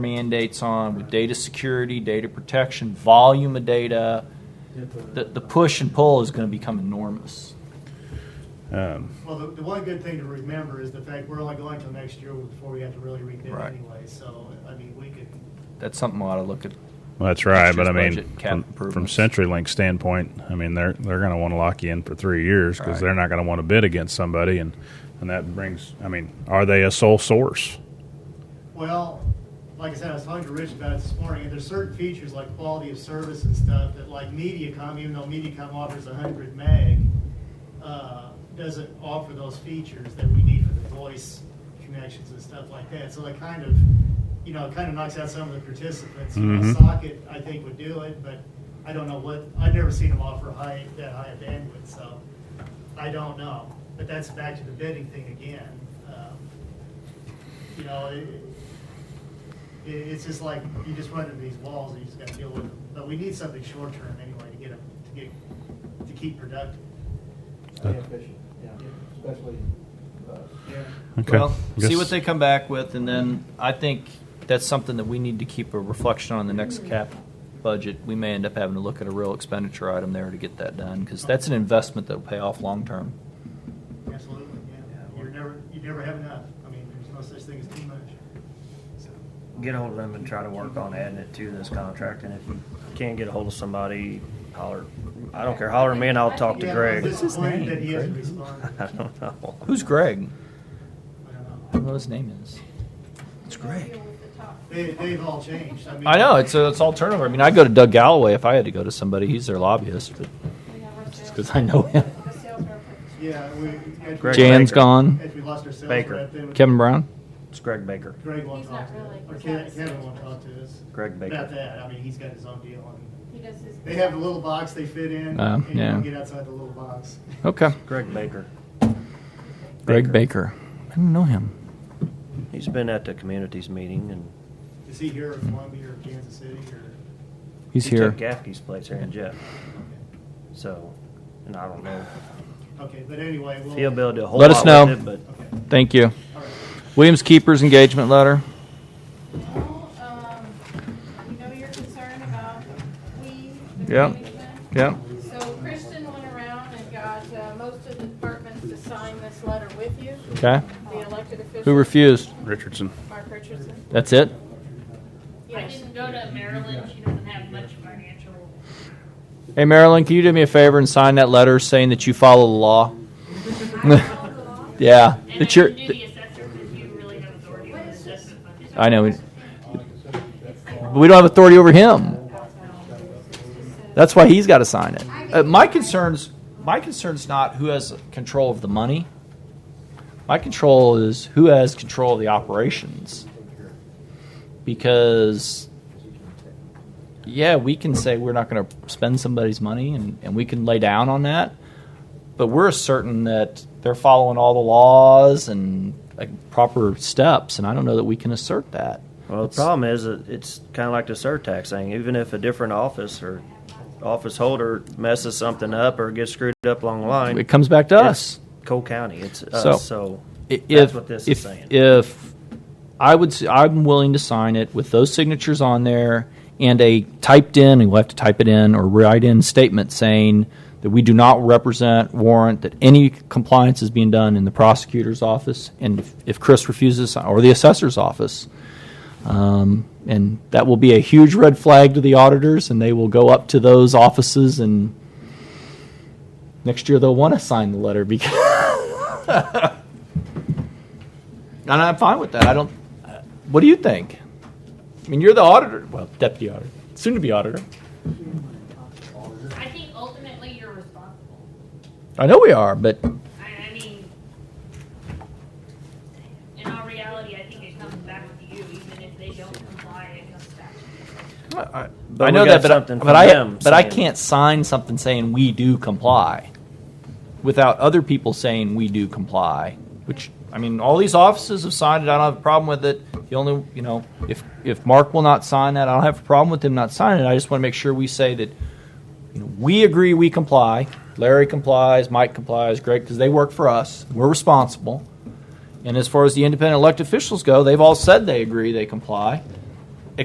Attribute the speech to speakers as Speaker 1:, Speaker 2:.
Speaker 1: mandates on with data security, data protection, volume of data. The, the push and pull is going to become enormous.
Speaker 2: Um,
Speaker 3: Well, the, the one good thing to remember is the fact we're only going till next year before we have to really rebid
Speaker 1: Right.
Speaker 3: anyway, so, I mean, we could,
Speaker 1: That's something we ought to look at.
Speaker 2: well, that's right,
Speaker 1: Next
Speaker 2: but I
Speaker 1: year's
Speaker 2: mean,
Speaker 1: budget, cap
Speaker 2: from, from
Speaker 1: improvements.
Speaker 2: CenturyLink standpoint, I mean they're they're going to want to lock you in for three years because
Speaker 1: Right.
Speaker 2: they're not going to want to bid against somebody, and and that brings, I mean, are they a sole source?
Speaker 3: well, like I said, I was talking to Rich about it this morning, and there's certain features like quality of service and stuff that like MediaCom, even though MediaCom offers hundred meg, uh, doesn't offer those features that we need for the voice connections and stuff like that. So that kind of, you know, it kind of knocks out some of the participants. You know,
Speaker 2: Mhm.
Speaker 3: Socket, I think, would do it, but I don't know what, I've never seen them offer high, that high a bandwidth, so I don't know. But that's back to the bidding thing again. Um, You know, it, it, it's just like, you just run into these walls and you just gotta deal with them. But we need something short-term anyway to get them, to get, to keep productive.
Speaker 4: Stay efficient, yeah, especially, uh,
Speaker 2: Okay,
Speaker 1: Well,
Speaker 2: I
Speaker 1: see
Speaker 2: guess-
Speaker 1: what they come back with, and then I think that's something that we need to keep a reflection on the next cap budget. We may end up having to look at a real expenditure item there to get that done because that's an investment that'll pay off long term.
Speaker 3: Absolutely, yeah. You're never, you never have enough. I mean, there's no such thing as too much.
Speaker 5: get ahold of them and try to work on adding it to this contract, and if you can't get a hold of somebody, holler, I don't care, holler at me and I'll talk to
Speaker 3: Yeah,
Speaker 5: Greg.
Speaker 3: What's his name? That he hasn't responded.
Speaker 5: I don't know.
Speaker 1: Who's Greg?
Speaker 3: I don't
Speaker 1: I
Speaker 3: know.
Speaker 1: don't know what his name is. It's Greg.
Speaker 3: They, they've all changed. I mean.
Speaker 1: I know it's it's all turnover. I mean, I go to Doug Galloway if I had to go to somebody. He's their lobbyist, but just because I know him.
Speaker 3: Yeah, we. after-
Speaker 5: Greg
Speaker 1: Jan's
Speaker 5: Baker.
Speaker 1: gone.
Speaker 3: After we lost our sales
Speaker 5: Baker.
Speaker 3: rep, then
Speaker 1: Kevin Brown.
Speaker 5: It's Greg Baker.
Speaker 3: Greg won't
Speaker 6: He's
Speaker 3: talk
Speaker 6: not
Speaker 3: to us.
Speaker 6: really-
Speaker 3: Or
Speaker 6: he's
Speaker 3: Ke-
Speaker 6: not a
Speaker 3: Kevin
Speaker 6: sales
Speaker 3: won't talk to us.
Speaker 5: Greg Baker.
Speaker 3: About that. I mean, he's got his own deal. and
Speaker 6: He does his.
Speaker 3: They have a little box they fit in.
Speaker 5: Uh,
Speaker 1: Oh,
Speaker 3: And you
Speaker 1: yeah.
Speaker 3: don't get outside the little box.
Speaker 1: Okay.
Speaker 5: Greg Baker.
Speaker 1: Greg Baker. I don't know him.
Speaker 5: He's been at the communities meeting and.
Speaker 3: Is he here in Columbia or Kansas City or?
Speaker 1: He's
Speaker 5: he
Speaker 1: here.
Speaker 5: took Gaffney's place here in Jeff, so, and I don't know
Speaker 3: Okay, but anyway, we'll.
Speaker 5: if he'll be able to do a whole
Speaker 1: Let us
Speaker 5: lot with
Speaker 1: know.
Speaker 5: it,
Speaker 3: Okay,
Speaker 1: Thank you.
Speaker 3: all right.
Speaker 1: Williams Keeper's engagement letter.
Speaker 6: Well, um, we know you're concerned about we, the
Speaker 1: Yeah.
Speaker 6: management.
Speaker 1: Yeah.
Speaker 6: So Kristen went around and got uh, most of the departments to sign this letter with you,
Speaker 1: Okay.
Speaker 6: the elected officials.
Speaker 1: Who refused?
Speaker 2: Richardson.
Speaker 6: Mark Richardson.
Speaker 1: That's it.
Speaker 7: I
Speaker 6: Yes.
Speaker 7: didn't go to Maryland. She doesn't have much financial.
Speaker 1: Hey Marilyn, can you do me a favor and sign that letter saying that you follow the law? yeah.
Speaker 7: And I
Speaker 1: That you're.
Speaker 7: didn't do the assessor because you really have authority over the assessment fund.
Speaker 1: I know. We, but we don't have authority over him. That's why he's got to sign it. Uh, my concerns, my concerns, not who has control of the money. My control is who has control of the operations. Because, yeah, we can say we're not going to spend somebody's money, and, and we can lay down on that but we're certain that they're following all the laws and like, proper steps, and I don't know that we can assert that.
Speaker 5: Well, the
Speaker 1: It's-
Speaker 5: problem is, that it's kind of like the surtax thing. Even if a different office or office holder messes something up or gets screwed up along the line,
Speaker 1: It comes back to us.
Speaker 5: it's Cole County. It's us.
Speaker 1: So-
Speaker 5: So,
Speaker 1: I-
Speaker 5: that's what this
Speaker 1: if,
Speaker 5: is saying.
Speaker 1: If I would, s- I'm willing to sign it with those signatures on there and a typed in, and you'll have to type it in or write in statement saying that we do not represent, warrant that any compliance is being done in the prosecutor's office, and if, if Chris refuses, or the assessor's office. Um, and that will be a huge red flag to the auditors, and they will go up to those offices, and next year they'll want to sign the letter because. And I'm fine with that. I don't. uh, What do you think? I mean, you're the auditor. Well, deputy auditor, soon to be auditor.
Speaker 7: I think ultimately you're responsible.
Speaker 1: I know we are, but
Speaker 7: I, I mean, in all reality, I think it comes back to you, even if they don't comply, it comes back to
Speaker 1: I,
Speaker 5: But
Speaker 1: I
Speaker 5: we
Speaker 1: know that.
Speaker 5: got
Speaker 1: But, I,
Speaker 5: something
Speaker 1: but
Speaker 5: from
Speaker 1: I
Speaker 5: them
Speaker 1: but I
Speaker 5: saying-
Speaker 1: can't sign something saying we do comply without other people saying we do comply. Which I mean, all these offices have signed it. I don't have a problem with it. The only you know, if if Mark will not sign that, I don't have a problem with him not signing it. I just want to make sure we say that you know, we agree we comply. Larry complies, Mike complies, Greg, because they work for us. We're responsible. And as far as the independent elected officials go, they've all said they agree they comply.